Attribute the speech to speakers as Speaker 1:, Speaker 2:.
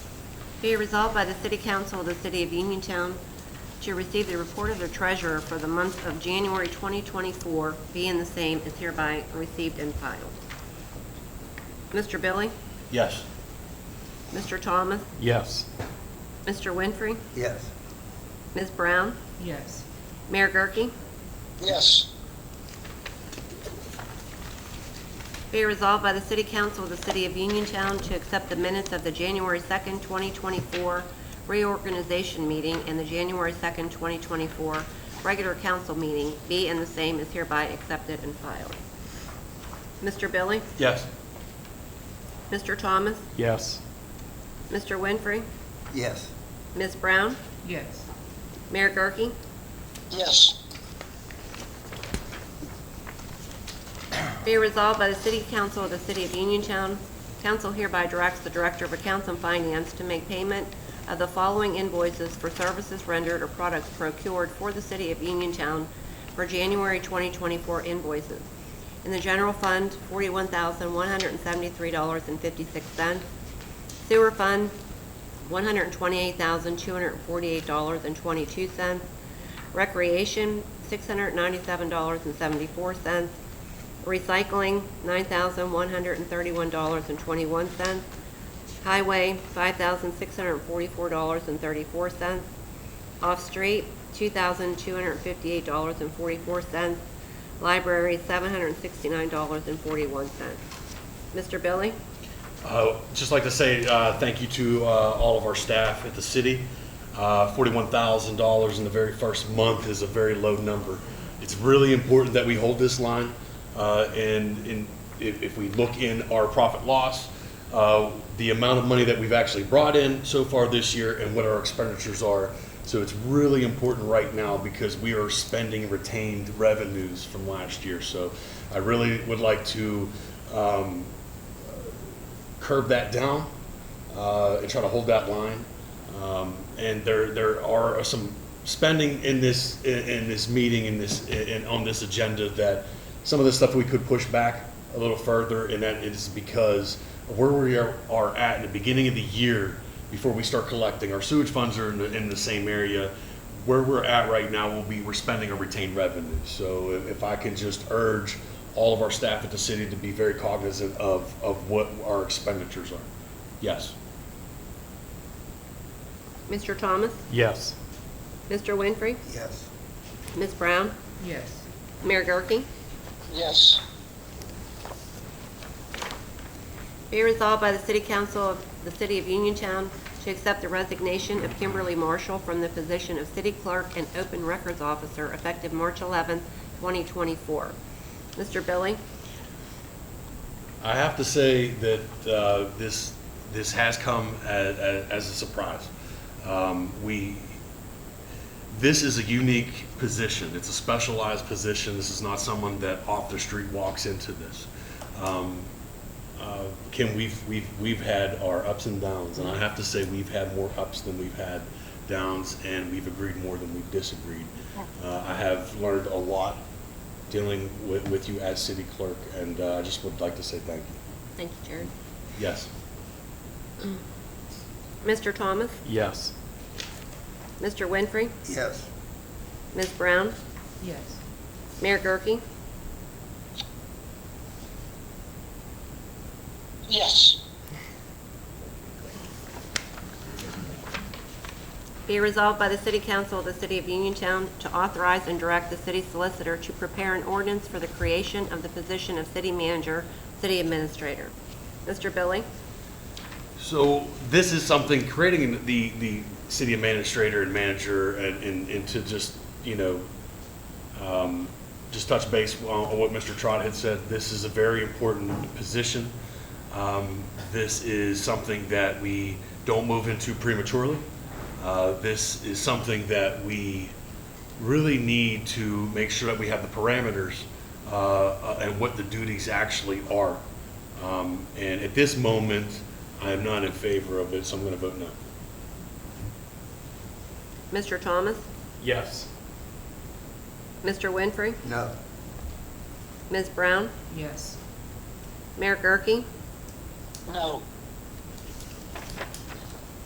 Speaker 1: Be resolved by the City Council of the City of Uniontown to receive the report of the treasurer for the month of January 2024, being the same is hereby received and filed. Mr. Billy?
Speaker 2: Yes.
Speaker 1: Mr. Thomas?
Speaker 2: Yes.
Speaker 1: Mr. Winfrey?
Speaker 3: Yes.
Speaker 1: Ms. Brown?
Speaker 4: yes,
Speaker 1: Mayor Gurke?
Speaker 5: yes,
Speaker 1: Be resolved by the City Council of the City of Uniontown to accept the minutes of the January 2nd, 2024 reorganization meeting and the January 2nd, 2024 regular council meeting be and the same is hereby accepted and filed. Mr. Billy?
Speaker 2: Yes.
Speaker 1: Mr. Thomas?
Speaker 2: Yes.
Speaker 1: Mr. Winfrey?
Speaker 3: Yes.
Speaker 1: Ms. Brown?
Speaker 4: yes,
Speaker 1: Mayor Gurke?
Speaker 5: yes,
Speaker 1: Be resolved by the City Council of the City of Uniontown. Council hereby directs the Director of Accounts and Finance to make payment of the following invoices for services rendered or products procured for the City of Uniontown for January 2024 invoices. In the General Fund, $41,173.56. Sewer Fund, $128,248.22. Recreation, $697.74. Recycling, $9,131.21. Highway, $5,644.34. Off-street, $2,258.44. Library, $769.41. Mr. Billy?
Speaker 6: Uh, Just like to say uh, thank you to uh, all of our staff at the city. Uh, $41,000 in the very first month is a very low number. It's really important that we hold this line, uh, and and if if we look in our profit loss, uh, the amount of money that we've actually brought in so far this year and what our expenditures are. So it's really important right now because we are spending retained revenues from last year. So I really would like to um, curb that down uh, and try to hold that line. Um, and there there are some spending in this in, in this meeting in this in, on this agenda that some of the stuff we could push back a little further, and that is because of where we are, are at in the beginning of the year before we start collecting our sewage funds are in the, in the same area where we're at right now will be, we're spending our retained revenue. So if if I can just urge all of our staff at the city to be very cognizant of, of what our expenditures are. Yes.
Speaker 1: Mr. Thomas?
Speaker 2: Yes.
Speaker 1: Mr. Winfrey?
Speaker 3: Yes.
Speaker 1: Ms. Brown?
Speaker 4: yes,
Speaker 1: Mayor Gurke?
Speaker 5: yes,
Speaker 1: Be resolved by the City Council of the City of Uniontown to accept the resignation of Kimberly Marshall from the position of City Clerk and Open Records Officer effective March 11, 2024. Mr. Billy?
Speaker 6: I have to say that uh, this this has come as, as a surprise. Um, we this is a unique position. It's a specialized position. This is not someone that off the street walks into this. Um, uh, Kim, we've we've we've had our ups and downs, and I have to say we've had more ups than we've had downs, and we've agreed more than we've disagreed. Uh, I have learned a lot dealing with, with you as city clerk, and uh, I just would like to say thank you.
Speaker 1: Thank you, Jared.
Speaker 6: Yes.
Speaker 1: Mr. Thomas?
Speaker 2: Yes.
Speaker 1: Mr. Winfrey?
Speaker 3: Yes.
Speaker 1: Ms. Brown?
Speaker 4: yes,
Speaker 1: Mayor Gurke?
Speaker 5: yes,
Speaker 1: Be resolved by the City Council of the City of Uniontown to authorize and direct the city solicitor to prepare an ordinance for the creation of the position of city manager, city administrator. Mr. Billy?
Speaker 6: So this is something creating the the city administrator and manager and, and, and to just you know um, just touch base on on what Mr. Trot had said. This is a very important position. Um, this is something that we don't move into prematurely. Uh, this is something that we really need to make sure that we have the parameters uh, uh, and what the duties actually are. Um, And at this moment, I am not in favor of it, so I'm going to vote no.
Speaker 1: Mr. Thomas?
Speaker 2: Yes.
Speaker 1: Mr. Winfrey?
Speaker 3: No.
Speaker 1: Ms. Brown?
Speaker 4: yes,
Speaker 1: Mayor Gurke?
Speaker 5: no,